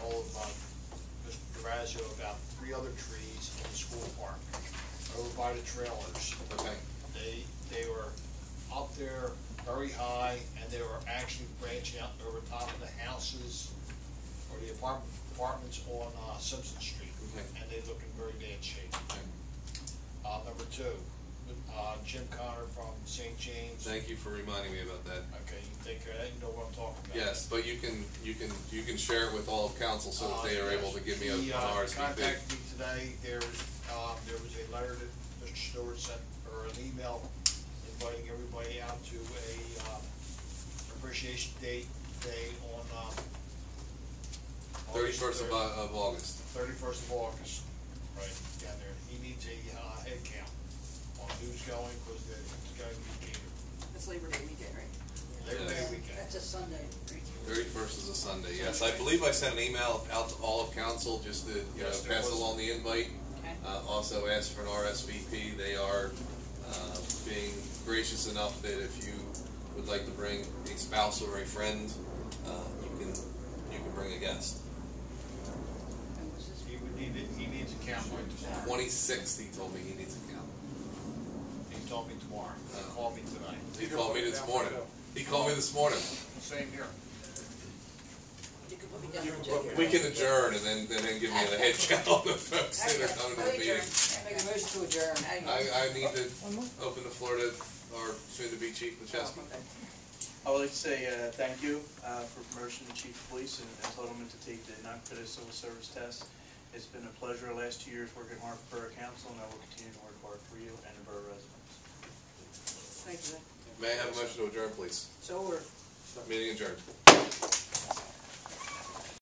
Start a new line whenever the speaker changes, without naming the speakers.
to um, about three other trees in the school park, over by the trailers.
Okay,
They, they were up there very high, and they were actually branching out over top of the houses or the apartment, apartments on uh, Simpson Street.
Okay.
And they look in very bad shape.
okay.
Uh, number two, uh, Jim Connor from St. James.
Thank you for reminding me about that.
Okay, you take care of that, you know what I'm talking about.
Yes, but you can, you can, you can share it with all of council so that they are able to give me a an
He, uh,
RSVP.
contacted me today, there, um, there was a letter that Mr. Stewart sent, or an email inviting everybody out to a, um, appreciation date, day on, um.
Thirty-first of, uh, Au- of August.
Thirty-first of August, right, down there, he needs a, uh, head count on who's going, cause there- it's gotta be catered.
It's Labor Day weekend, right?
Labor Day
Yes.
weekend.
That's a Sunday, right?
Thirty-first is a Sunday, yes. I believe I sent an email out to all of council just to, you know,
Yes, there
pass
was.
along the invite.
Okay.
Uh, also asked for an RSVP. They are, uh, being gracious enough that if you would like to bring a spouse or a friend, uh, you can, you can bring a guest.
And was this,
He would need, it- he needs a count by tomorrow.
Twenty-sixth, he told me he needs a count.
He told me tomorrow,
Oh.
he called me tonight.
He called me this morning. He called me this morning.
Same here.
you could put me down for a
We can adjourn and then, and then give me the head count on the folks that are coming to the meeting.
Make a motion to adjourn.
I, I need to open the floor to our soon-to-be chief, Macheski.
I would like to say uh, thank you uh, for promotion to chief of police and and Alderman to take the non-competitive civil service test. It's been a pleasure the last two years working hard for Borough Council, and I will continue to work hard for you and the borough residents.
Thank you.
May I have a motion to adjourn, please?
So we're.
Meeting adjourned.